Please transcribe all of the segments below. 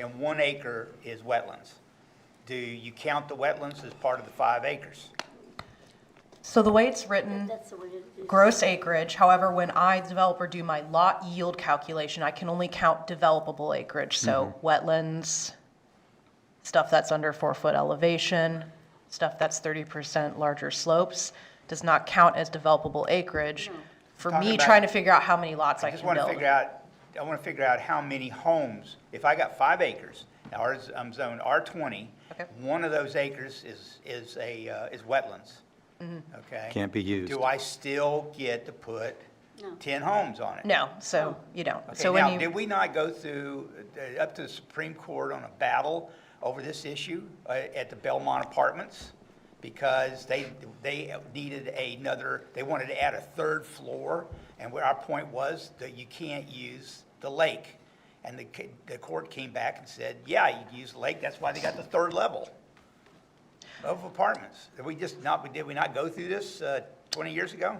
and one acre is wetlands. Do you count the wetlands as part of the five acres? So the way it's written, That's the way it is. gross acreage, however, when I, the developer, do my lot yield calculation, I can only count developable acreage, so wetlands, stuff that's under four-foot elevation, stuff that's thirty percent larger slopes, does not count as developable acreage. For Talking me, about- trying to figure out how many lots I I just can want to build. figure out, I want to figure out how many homes, if I got five acres, ours, I'm zoned R twenty, Okay. one of those acres is, is a, uh, is wetlands, Mm-hmm. okay? Can't be used. Do I still get to put No. ten homes on it? No, so Oh. you don't. Okay, So when now, you. did we not go through, uh, up to the Supreme Court on a battle over this issue uh, at the Belmont Apartments? Because they, they needed another, they wanted to add a third floor, and what our point was that you can't use the lake. And the, ca- the court came back and said, yeah, you can use the lake, that's why they got the third level of apartments. Did we just not, did we not go through this uh, 20 years ago?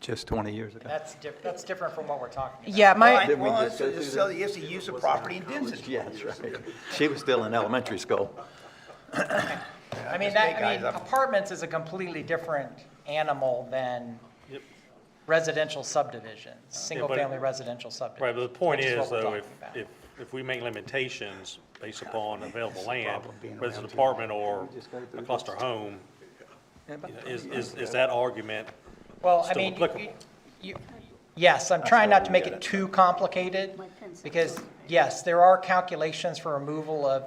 just 20 years ago. That's different, that's different from what we're talking about. Yeah, my, Well, Didn't we well, just it's, go through it's, it's the use of property in density. Yeah, that's right. She was still in elementary school. I mean, just big that, I mean, guys up. apartments is a completely different animal than residential subdivisions, single-family residential subdivisions. Right, but the point which what is, we're though, talking if, about. if, if we make limitations based upon available land, problem being whether it's an around apartment or a cluster home, you know, is, is, is that argument, Well, I still mean, applicable. you- you, yes, I'm trying not to make it too complicated, My pencil. because, yes, there are calculations for removal of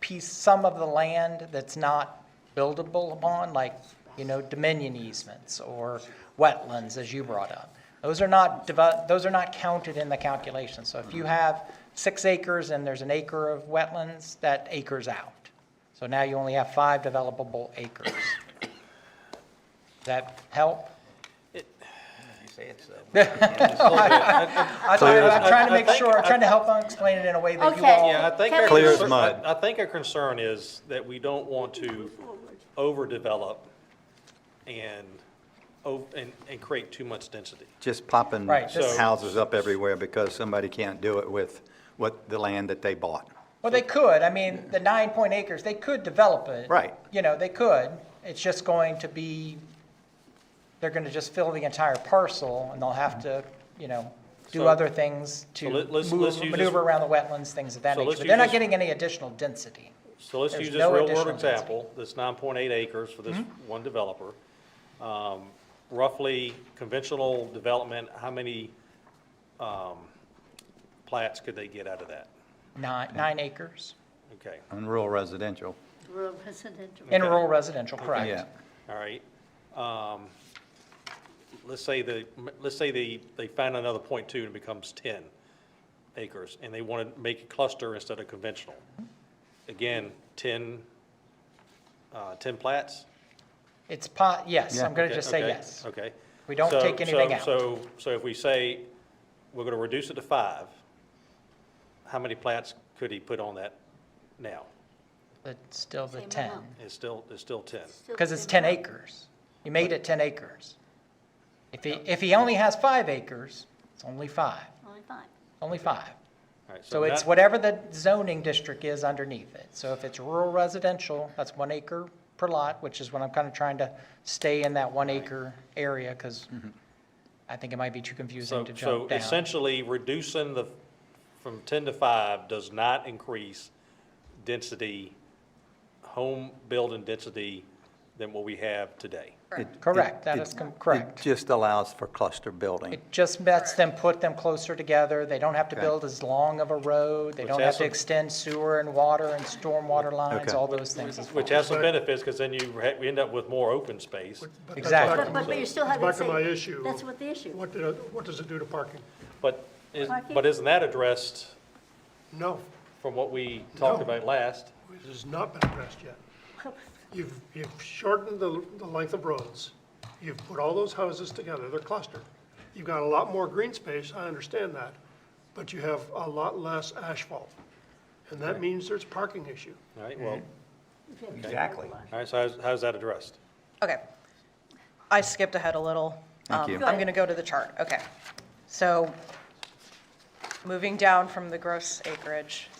piece, some of the land that's not buildable upon, like, you know, dominion easements or wetlands, as you brought up. Those are not, devo- those are not counted in the calculation. So if you Mm-hmm. have six acres and there's an acre of wetlands, that acre's out. So now you only have five developable acres. Does that help? You say it's, uh, I thought, I'm trying to make sure, I'm trying to help them explain it in a way that you Okay. all. Yeah, I think. Kevin- our Clear as concern- mud. I I think our concern is that we don't want to overdevelop and, o- and, and create too much density. Just popping Right, this- houses up everywhere because somebody can't do it with what, the land that they bought. Well, they could, I mean, the nine point acres, they could develop it. Right. You know, they could, it's just going to be, they're gonna just fill the entire parcel, and they'll have to, you know, do So- other things to so let- let's- let's move- use maneuver this- around the wetlands, things of that So nature, let's but they're use not this- getting any additional density. So let's There's use no this real-world additional density. Mm-hmm. example, this nine point eight acres for this one developer. Um, Roughly conventional development, how many, um, plats could they get out of that? Nine, nine acres Okay, And rural residential, Rural residential. in Okay. rural residential, correct? yeah. all right. Um, let's say the, let's say they, they find another point two and it becomes ten acres, and they want to make a cluster instead of conventional. Again, ten, uh, ten plats? It's po, yes, I'm gonna Okay, just say okay, yes. Okay. We don't So- take anything so- out. So, so if we say, we're gonna reduce it to five, how many plats could he put on that now? But still the Same 10, amount. It's still, it's still ten. because it's 10 acres. You made it 10 acres. If he, if he only has five acres, it's only five, Only five. only five. All right, So it's that- whatever the zoning district is underneath it. So if it's rural residential, that's one acre per lot, which is what I'm kind of trying to stay in that one acre area, because I think it might be too Mm-hmm. So, confusing to so jump down. essentially, reducing the, from ten to five does not increase density, home building density than what we have today. It- Correct, it- that it- is com- correct. It just allows for cluster building. It just lets them put them closer together, they don't have to build as long of a road, they Which don't has have to some- extend sewer and water and stormwater lines, Okay. all those things as well. Which has some benefits, because then you ha- we end up with more open space. But that's Exactly. back But, to but my- but you still that's haven't Back to said- my issue. That's what the issue. What, do- what does it do to parking? But is, Parking? but isn't that addressed No, from what we talked No. about last? it has not been addressed yet. You've, you've shortened the, the length of roads. You've put all those houses together, they're clustered. You've got a lot more green space, I understand that, but you have a lot less asphalt. And that means there's a parking issue. All right, well, Exactly. all right, so how's, how's that addressed? Okay. I skipped ahead a little. Thank Um, you. I'm going to go to the chart. Okay. So moving down from the gross acreage,